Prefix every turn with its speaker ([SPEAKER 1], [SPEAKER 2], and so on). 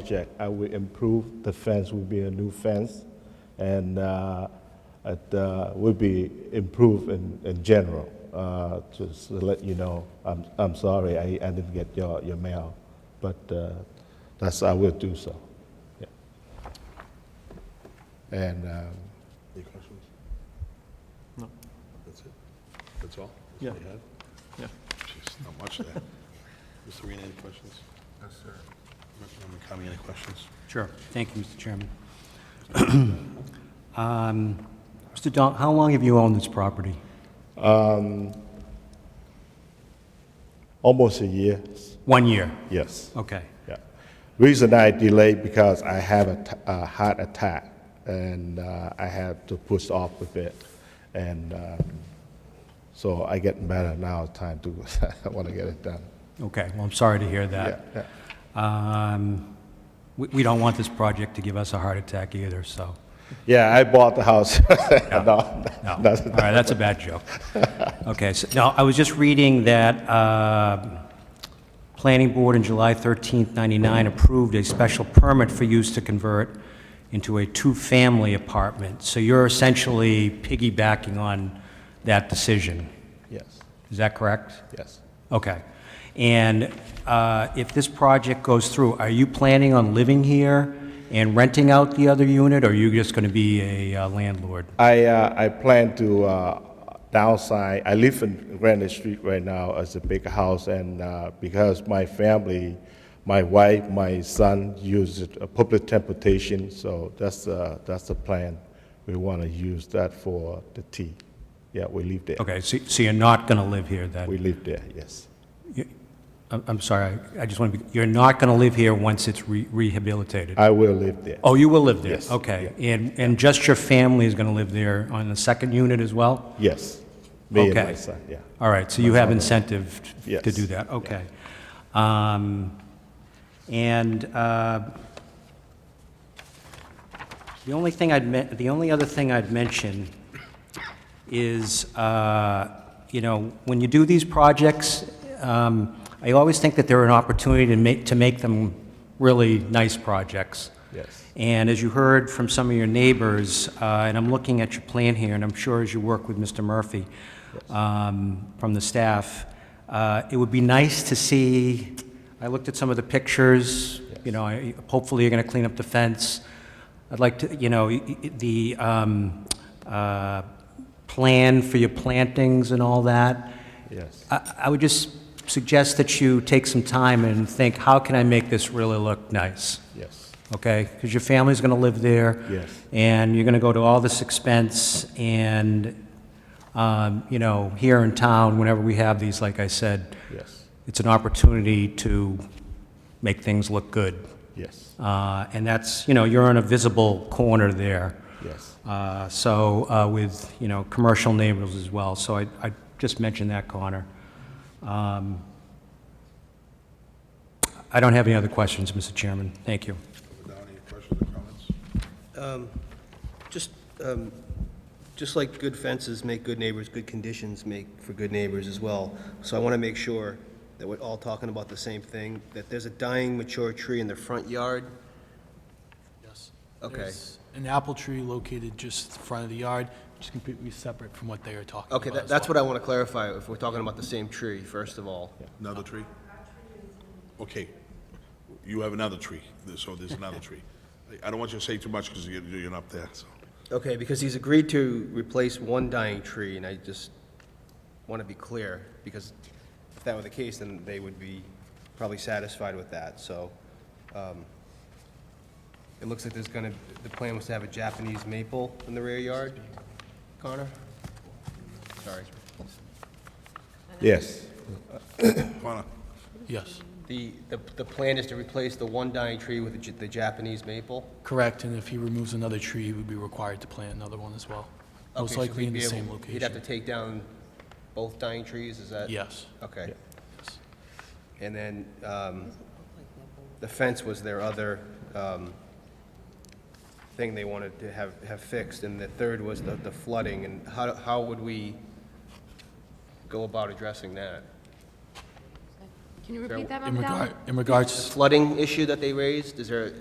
[SPEAKER 1] project. I will improve the fence, will be a new fence, and uh, it uh, will be improved in, in general. Uh, Just to let you know, I'm, I'm sorry, I, I didn't get your, your mail, but uh, that's, I will do so. Yeah. And um,
[SPEAKER 2] Any questions?
[SPEAKER 3] No.
[SPEAKER 2] That's it? That's all? That's
[SPEAKER 3] Yeah.
[SPEAKER 2] all you had?
[SPEAKER 3] Yeah.
[SPEAKER 2] Jeez, not much there. Mr. Arena, any questions? Yes, sir. Member Kami, any questions?
[SPEAKER 4] Sure. Thank you, Mr. Chairman. Um, Mr. Don, how long have you owned this property?
[SPEAKER 1] almost a year,
[SPEAKER 4] One year?
[SPEAKER 1] yes.
[SPEAKER 4] Okay.
[SPEAKER 1] Yeah. Reason I delayed because I have a, t- a heart attack and uh, I had to push off a bit. And um, so I get better now, time to, I want to get it done.
[SPEAKER 4] Okay, well, I'm sorry to hear
[SPEAKER 1] Yeah,
[SPEAKER 4] that.
[SPEAKER 1] yeah.
[SPEAKER 4] Um, We we don't want this project to give us a heart attack either, so,
[SPEAKER 1] Yeah, I bought the house. No,
[SPEAKER 4] no. All
[SPEAKER 1] that's-
[SPEAKER 4] right, that's a bad joke. Okay, so, no, I was just reading that um, Planning Board in July 13th, 99 approved a special permit for use to convert into a two-family apartment. So you're essentially piggybacking on that decision.
[SPEAKER 1] Yes,
[SPEAKER 4] Is that correct?
[SPEAKER 1] yes.
[SPEAKER 4] Okay. And uh, if this project goes through, are you planning on living here and renting out the other unit, or are you just going to be a uh, landlord?
[SPEAKER 1] I, uh, I plan to uh, downsize. I live in Granite Street right now as a big house, and uh, because my family, my wife, my son use it, uh, public transportation, so that's, uh, that's the plan. We want to use that for the tea. Yeah, we live there.
[SPEAKER 4] Okay, so so you're not going to live here then?
[SPEAKER 1] We live there, yes.
[SPEAKER 4] You- I'm I'm sorry, I I just want to be, you're not going to live here once it's re- rehabilitated?
[SPEAKER 1] I will live there.
[SPEAKER 4] Oh, you will live there?
[SPEAKER 1] Yes,
[SPEAKER 4] Okay. And and just your family is going to live there on the second unit as well?
[SPEAKER 1] Yes, me and my
[SPEAKER 4] Okay.
[SPEAKER 1] son, yeah.
[SPEAKER 4] All right, so you have incentive t- to
[SPEAKER 1] Yes.
[SPEAKER 4] do that, okay. Um, And uh, the only thing I'd, men- the only other thing I'd mention is, uh, you know, when you do these projects, um, I always think that they're an opportunity to make, to make them really nice projects.
[SPEAKER 1] Yes.
[SPEAKER 4] And as you heard from some of your neighbors, uh, and I'm looking at your plan here, and I'm sure as you work with Mr. Murphy um, from the staff, uh, it would be nice to see, I looked at some of the pictures, you know, I- hopefully you're going to clean up the fence. I'd like to, you know, y- y- the um, uh, plan for your plantings and all that.
[SPEAKER 1] Yes.
[SPEAKER 4] I I would just suggest that you take some time and think, how can I make this really look nice?
[SPEAKER 1] Yes,
[SPEAKER 4] okay? Because your family's going to live there.
[SPEAKER 1] Yes.
[SPEAKER 4] And you're going to go to all this expense, and, um, you know, here in town, whenever we have these, like I said,
[SPEAKER 1] yes,
[SPEAKER 4] it's an opportunity to make things look good.
[SPEAKER 1] yes,
[SPEAKER 4] Uh, And that's, you know, you're in a visible corner there.
[SPEAKER 1] yes.
[SPEAKER 4] Uh, So, uh, with, you know, commercial neighbors as well, so I I just mentioned that, Connor. Um, I don't have any other questions, Mr. Chairman. Thank you.
[SPEAKER 2] Member Downey, any questions or comments?
[SPEAKER 5] Just, um, just like good fences make good neighbors, good conditions make for good neighbors as well. So I want to make sure that we're all talking about the same thing, that there's a dying mature tree in the front yard.
[SPEAKER 6] Yes.
[SPEAKER 5] Okay.
[SPEAKER 6] There's An apple tree located just in front of the yard, which is completely separate from what they are talking about.
[SPEAKER 5] Okay, that-
[SPEAKER 6] as
[SPEAKER 5] that's
[SPEAKER 6] well.
[SPEAKER 5] what I want to clarify, if we're talking about the same tree, first of all.
[SPEAKER 2] Another tree? Okay, you have another tree, There- so there's another tree. I- I don't want you to say too much because you're, you're not there, so.
[SPEAKER 5] Okay, because he's agreed to replace one dying tree, and I just want to be clear, because if that were the case, then they would be probably satisfied with that, so. um, It looks like there's gonna, the plan was to have a Japanese maple in the rear yard, Connor? Sorry.
[SPEAKER 1] Yes,
[SPEAKER 2] Connor,
[SPEAKER 6] Yes,
[SPEAKER 5] The, the, the plan is to replace the one dying tree with the J- the Japanese maple?
[SPEAKER 6] correct, and if he removes another tree, he would be required to plant another one as well.
[SPEAKER 5] Okay,
[SPEAKER 6] Most
[SPEAKER 5] so
[SPEAKER 6] likely
[SPEAKER 5] he'd
[SPEAKER 6] in the
[SPEAKER 5] be able-
[SPEAKER 6] same
[SPEAKER 5] He'd have to
[SPEAKER 6] location.
[SPEAKER 5] take down both dying trees, is that?
[SPEAKER 6] Yes,
[SPEAKER 5] Okay. And then um, the fence was their other um, thing they wanted to have, have fixed, and the third was the the flooding, and how, how would we go about addressing that?
[SPEAKER 7] Can you repeat that,
[SPEAKER 6] In
[SPEAKER 7] Mom?
[SPEAKER 6] regard, in regards to Oh
[SPEAKER 5] Flooding issue that they raised, is there,